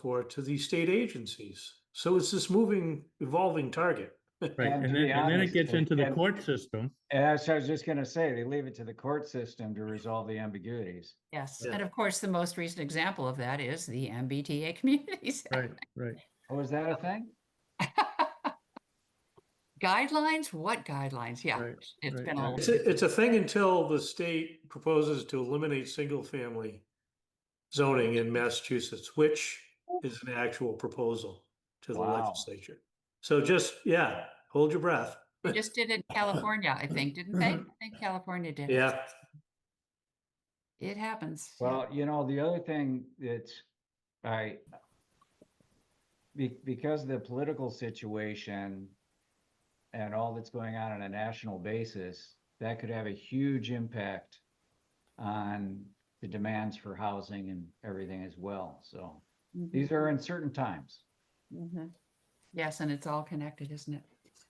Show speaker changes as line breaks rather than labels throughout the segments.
for to these state agencies. So it's this moving, evolving target.
Right, and
And to
then,
be
and then it
honest,
gets
they
into the
can-
court system.
As I was just gonna say, they leave it to the court system to resolve the ambiguities.
Yes,
Yeah.
and of course, the most recent example of that is the MBTA communities
Right, right.
Oh, is that a thing?
guidelines. What guidelines? Yeah,
Right,
it's
right,
been
right.
all.
It's a, it's a thing until the state proposes to eliminate single-family zoning in Massachusetts, which is an actual proposal to the
Wow.
legislature. So just, yeah, hold your breath.
They just did it in California, I think, didn't they? I think California did. it.
Yeah,
It happens. yeah.
Well, you know, the other thing that's, I, be, because of the political situation and all that's going on on a national basis, that could have a huge impact on the demands for housing and everything as well. So
Mhm,
these are uncertain times.
mhm. Yes, and it's all connected, isn't it?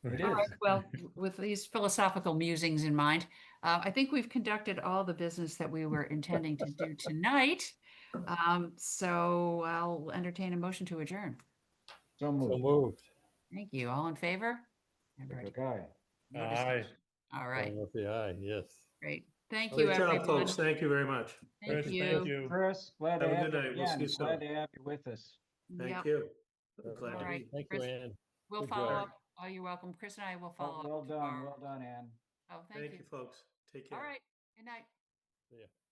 It
All
is.
right, well, w- with these philosophical musings in mind, uh, I think we've conducted all the business that we were intending to do tonight. Um, so I'll entertain a motion to adjourn.
So
So
moved.
moved.
Thank you. All in favor? I've already
Okay.
noticed
Aye.
it. All right,
With the eye, yes.
great. Thank you,
great job,
everyone.
folks. Thank you very much.
Thank
Chris,
you.
Chris, glad to
Have a
have
good
you
night. We'll see
again.
you soon.
Glad to have you with us.
Yep,
Thank you. Glad to
All
be-
right,
Thank you,
Chris.
Ann.
We'll
Good
follow
work.
up. Oh, you're welcome. Chris and I will
Well
follow
well
up
done,
tomorrow.
well done, Ann.
Oh, thank
Thank you,
you.
folks. Take care.
All right, good night.